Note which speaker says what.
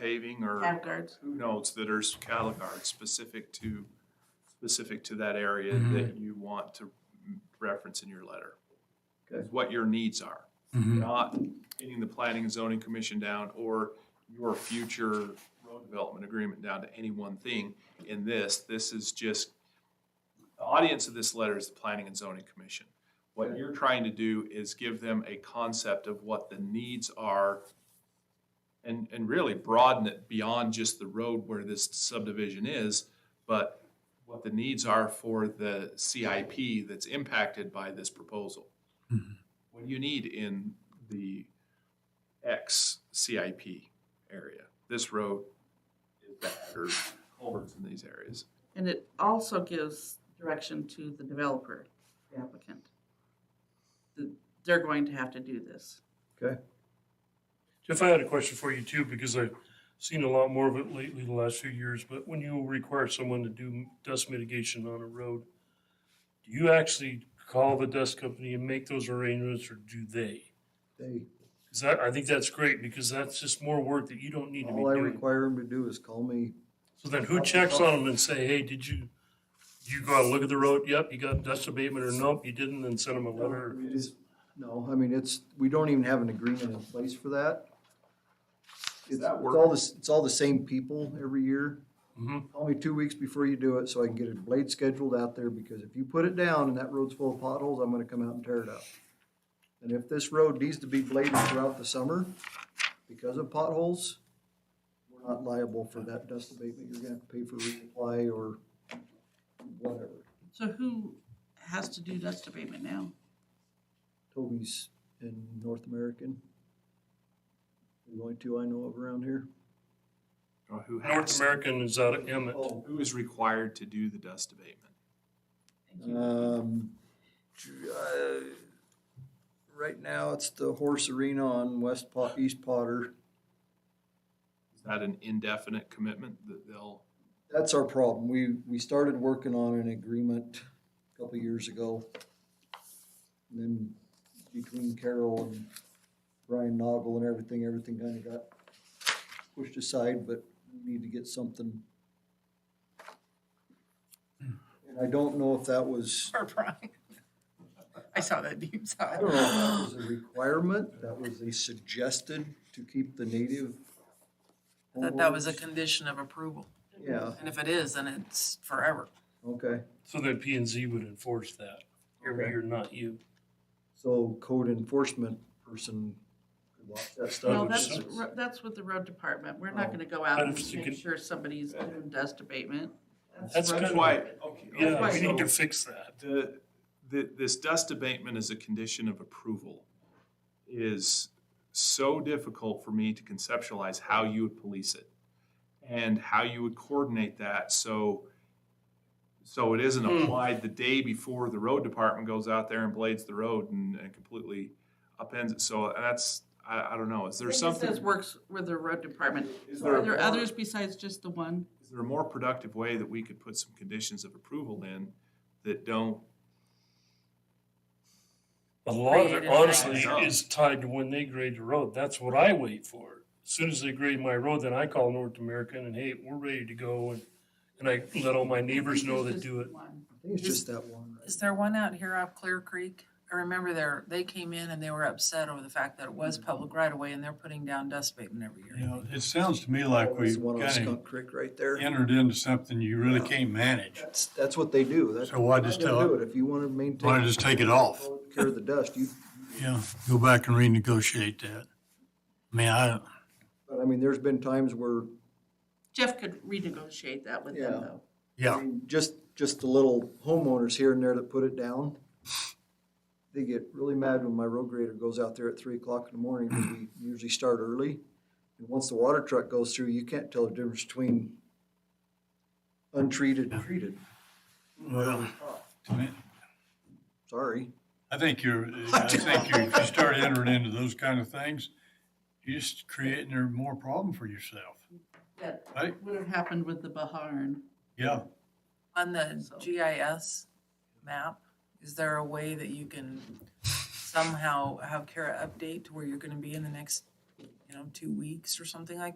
Speaker 1: paving or
Speaker 2: Cattle guards.
Speaker 1: who knows that are cattle guards specific to, specific to that area
Speaker 3: Mhm.
Speaker 1: that you want to reference in your letter.
Speaker 4: Good.
Speaker 1: What your needs are,
Speaker 5: Mm-hmm.
Speaker 3: Mhm.
Speaker 1: not getting the planning and zoning commission down or your future road development agreement down to any one thing in this. This is just, the audience of this letter is the planning and zoning commission. What
Speaker 4: Okay.
Speaker 1: you're trying to do is give them a concept of what the needs are and, and really broaden it beyond just the road where this subdivision is, but what the needs are for the CIP that's impacted by this proposal.
Speaker 3: Mhm.
Speaker 1: What do you need in the X CIP area? This road is bad or culverts in these areas.
Speaker 2: And it also gives direction to the developer, the applicant. Th- They're going to have to do this.
Speaker 6: Jeff, I had a question for you too, because I've seen a lot more of it lately the last few years, but when you require someone to do dust mitigation on a road, do you actually call the dust company and make those arrangements or do they?
Speaker 4: They,
Speaker 6: Cause that, I think that's great because that's just more work that you don't need to be
Speaker 4: all Oh, I
Speaker 6: doing.
Speaker 4: require them to do is call me.
Speaker 6: So then who checks on them and say, hey, did you, did you go out and look at the road? Yep, you got dust abatement or nope, you didn't, and send them a letter.
Speaker 4: It is- No, I mean, it's, we don't even have an agreement in place for that. It's it's
Speaker 1: that work?
Speaker 4: all this, it's all the same people every year.
Speaker 6: hmm
Speaker 4: Call me two weeks before you do it so I can get a blade scheduled out there because if you put it down and that road's full of potholes, I'm gonna come out and tear it up. And if this road needs to be bladed throughout the summer because of potholes, we're not liable for that dust abatement. You're gonna have to pay for reapply or whatever.
Speaker 2: So who has to do dust abatement now?
Speaker 4: Toby's in North American. The only two I know of around here.
Speaker 1: Or who
Speaker 6: North
Speaker 1: has,
Speaker 6: American is out of Emmett.
Speaker 4: Oh.
Speaker 1: who is required to do the dust abatement?
Speaker 2: Thank you.
Speaker 4: Um, uh, right now, it's the horse arena on West Pot, East Potter.
Speaker 1: Is that an indefinite commitment that they'll,
Speaker 4: That's our problem. We, we started working on an agreement a couple years ago. And then between Carol and Brian Noggle and everything, everything kinda got pushed aside, but we need to get something. And I don't know if that was,
Speaker 7: Or Brian. I saw that deep
Speaker 4: I
Speaker 7: sigh.
Speaker 4: don't know if that was a requirement, that was a suggested to keep the native.
Speaker 7: That that was a
Speaker 4: homeowners.
Speaker 7: condition of approval.
Speaker 4: Yeah,
Speaker 7: And if it is, then it's forever.
Speaker 4: okay.
Speaker 6: So then P and Z would enforce that. You're,
Speaker 4: Okay.
Speaker 6: you're not you.
Speaker 4: So code enforcement person could watch that stuff.
Speaker 2: Well,
Speaker 6: would
Speaker 2: that's,
Speaker 6: suck.
Speaker 2: ro- that's with the road department. We're not
Speaker 4: Oh.
Speaker 2: gonna go
Speaker 6: But
Speaker 2: out and
Speaker 6: if you
Speaker 2: make
Speaker 6: could-
Speaker 2: sure somebody's doing dust abatement.
Speaker 6: That's
Speaker 2: road
Speaker 1: that's
Speaker 6: good.
Speaker 1: why,
Speaker 2: department.
Speaker 1: okay.
Speaker 6: Yeah, we
Speaker 1: so-
Speaker 6: need to fix that.
Speaker 1: The, the, this dust abatement as a condition of approval is so difficult for me to conceptualize how you would police it and how you would coordinate that so, so it isn't
Speaker 6: Hmm.
Speaker 1: applied the day before the road department goes out there and blades the road and, and completely upends it. So that's, I, I don't know, is there
Speaker 2: It just says
Speaker 1: something?
Speaker 2: works with the road department.
Speaker 1: Is
Speaker 2: So Are
Speaker 1: a
Speaker 2: there
Speaker 1: more-
Speaker 2: others besides just the one?
Speaker 1: is there a more productive way that we could put some conditions of approval in that don't
Speaker 6: A lot of it
Speaker 7: Created
Speaker 6: honestly
Speaker 1: that.
Speaker 6: is tied to when they grade the road. That's what I wait for. As Soon as they grade my road, then I call North American and hey, we're ready to go and, and I let all my neighbors know that
Speaker 2: Just
Speaker 6: do it.
Speaker 2: one.
Speaker 4: I think it's just that one, right?
Speaker 7: Is there one out here off Clear Creek? I remember there, they came in and they were upset over the fact that it was public right away and they're putting down dust abatement every
Speaker 5: You
Speaker 7: year.
Speaker 5: know, it sounds to me like
Speaker 4: Oh, that's
Speaker 5: we've
Speaker 4: the one on
Speaker 5: kind
Speaker 4: Skunk Creek right there.
Speaker 5: of entered into something you really can't manage.
Speaker 4: That's, that's what they do. That's
Speaker 5: So why just
Speaker 4: how they do
Speaker 5: tell,
Speaker 4: it. If you wanna
Speaker 5: why
Speaker 4: maintain,
Speaker 5: just take it off?
Speaker 4: care of the dust, you,
Speaker 5: Yeah, go back and renegotiate that. I mean, I,
Speaker 4: but I mean, there's been times where,
Speaker 2: Jeff could renegotiate that with
Speaker 4: Yeah.
Speaker 2: them though.
Speaker 4: I
Speaker 5: yeah,
Speaker 4: mean, just, just the little homeowners here and there that put it down. They get really mad when my road grader goes out there at three o'clock in the morning, 'cause we usually start early. And once the water truck goes through, you can't tell the difference between untreated and treated.
Speaker 5: well, to me,
Speaker 4: Sorry.
Speaker 5: I think you're, I think you, if you start entering into those kind of things, you're just creating a more problem for yourself.
Speaker 2: That
Speaker 5: Right.
Speaker 2: would have happened with the Baharn.
Speaker 5: Yeah,
Speaker 7: On the
Speaker 2: So-
Speaker 7: GIS map, is there a way that you can somehow have Kara update to where you're gonna be in the next, you know, two weeks or something like